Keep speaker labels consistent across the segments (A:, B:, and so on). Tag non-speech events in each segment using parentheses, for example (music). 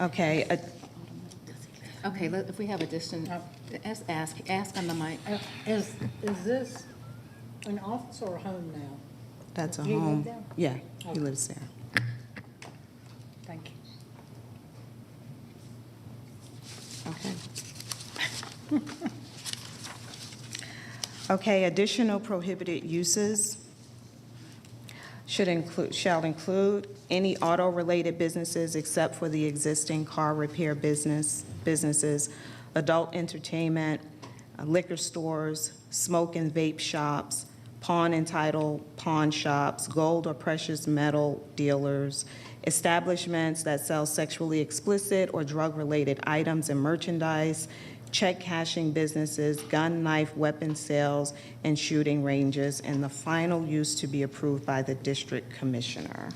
A: Okay, uh,
B: Okay, let- if we have a distant, ask, ask ask on the mic.
C: Uh, Is, is this an office or a home now?
A: that's a
C: You live
A: home.
C: there?
A: Yeah, he lives there.
C: Thank you.
A: Okay. Okay, additional prohibited uses should include, shall include any auto-related businesses except for the existing car repair business, businesses, adult entertainment, uh, liquor stores, smoke and vape shops, pawn and title pawn shops, gold or precious metal dealers, establishments that sell sexually explicit or drug-related items and merchandise, check cashing businesses, gun, knife, weapon sales, and shooting ranges, and the final use to be approved by the district commissioner.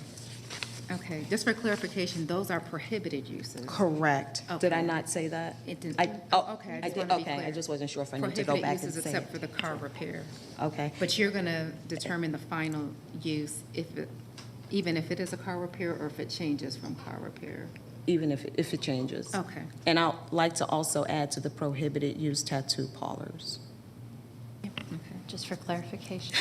B: Okay, just for clarification, those are prohibited uses.
A: Correct. Did I
B: Okay.
A: not say that?
B: Oh. It didn't-
A: I- oh,
B: Okay, I
A: I did-
B: just wanted to be
A: Okay, I
B: clear.
A: just wasn't sure if I need to go
B: Prohibited
A: back and
B: uses
A: say.
B: except for the car repair.
A: Okay,
B: But you're going to determine the final use if, it- even if it is a car repair or if it changes from car repair.
A: even if, if it changes.
B: Okay.
A: And I'd like to also add to the prohibited use tattoo parlors.
D: Just
B: (laughs)
D: for clarification.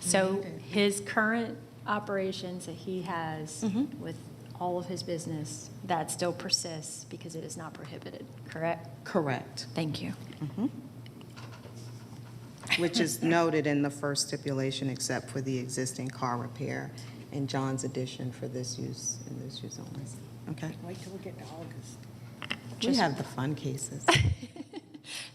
D: So his current operations that he has
A: Mm-hmm.
D: with all of his business, that still persists because it is not prohibited, correct?
A: Correct.
D: Thank you.
A: Which (laughs) is noted in the first stipulation except for the existing car repair and John's addition for this use, and this use only. Okay.
C: Wait till we get to August.
A: We
D: Just-
A: have the fun (laughs) cases.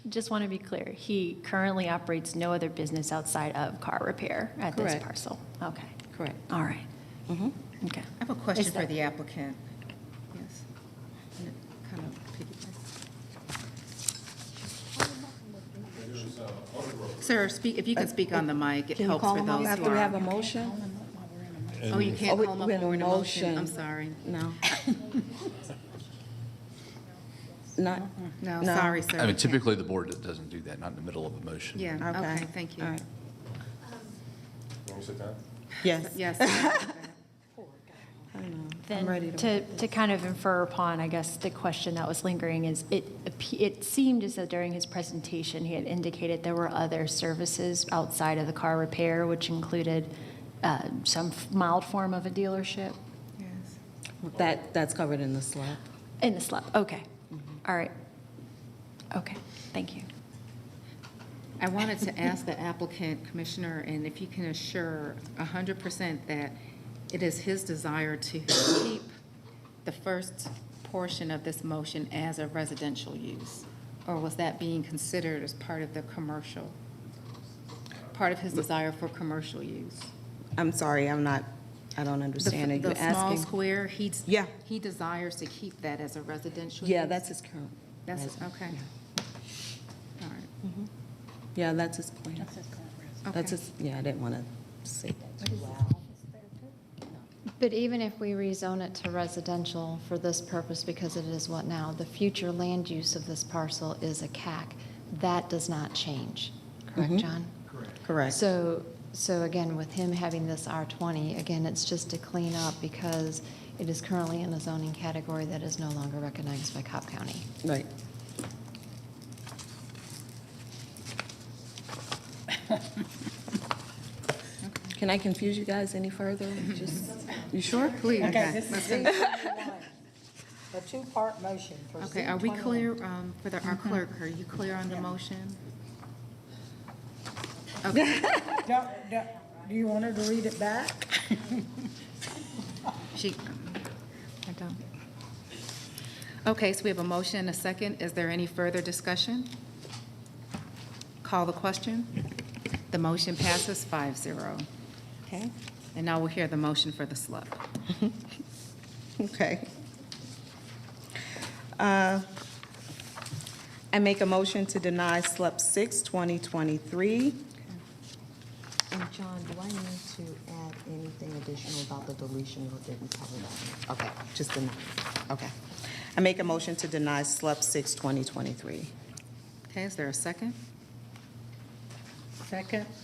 D: Just want to be clear, he currently operates no other business outside of car repair at this
A: Correct.
D: parcel? Okay,
A: Correct.
D: all right.
A: Mm-hmm.
D: Okay.
B: I have a question
D: Is
B: for
D: that-
B: the applicant. Yes. And it Kind of piggybacks. Sir, speak, if you can speak on the mic, it helps for those who
A: After we have a
B: are.
A: motion?
B: Oh, you
A: Oh,
B: can't
A: we-
B: call them
A: we
B: up
A: have a
B: for a motion. I'm
A: motion.
B: sorry. (laughs)
A: No. Not,
B: No,
A: No.
B: sorry, sir.
E: I
B: you
E: mean,
B: can't.
E: typically, the board doesn't do that, not in the middle of a motion.
A: okay.
B: Yeah, okay, thank you.
A: All right. Yes.
B: Yes. yes.
D: Then
A: ready to-
D: To kind of infer upon, I guess, the question that was lingering is, it, appe- it seemed as though during his presentation, he had indicated there were other services outside of the car repair, which included uh, some mild form of a dealership
B: (laughs) Yes.
A: That, that's covered in the slide.
D: in the slab. Okay,
A: Mm-hmm.
D: all right. Okay, thank you.
B: I wanted to ask the applicant, Commissioner, and if you can assure 100% that it is his desire to keep the first portion of this motion as a residential use? Or was that being considered as part of the commercial, part of his desire for commercial use?
A: I'm sorry, I'm not, I don't
B: The-
A: understand. Are you
B: The small
A: asking?
B: square, he's,
A: Yeah.
B: he desires to keep that as a residential?
A: Yeah,
B: use?
A: that's his current.
B: That's,
A: residence.
B: okay. All right.
A: Yeah, that's his plan.
B: Okay.
A: That's his, yeah, I didn't want to say that too loud.
F: But even if we rezone it to residential for this purpose, because it is what now, the future land use of this parcel is a CAC. That does not change, correct, John?
A: Correct.
F: So, so again, with him having this R20, again, it's just to clean up because it is currently in a zoning category that is no longer recognized by Cobb County.
A: Right. Can I confuse you guys any further? Just, you sure?
B: Please.
C: Okay, this is C twenty-one, a two-part motion for C
B: Okay, are we
C: twenty-one.
B: clear, um, for the, our clerk, are you clear on the motion?
C: Do, do- do you want her to read it back?
B: She, I don't. Okay, so we have a motion and a second. Is there any further discussion? Call the question. The motion passes five zero.
A: Okay.
B: And now we'll hear the motion for the slip.
A: Okay. Uh, I make a motion to deny SLUP 6, 2023.
F: And John, do I need to add anything additional about the deletion or did we cover that?
A: Okay, just deny. Okay. I make a motion to deny SLUP 6, 2023.
B: Okay, is there a second?
C: Second,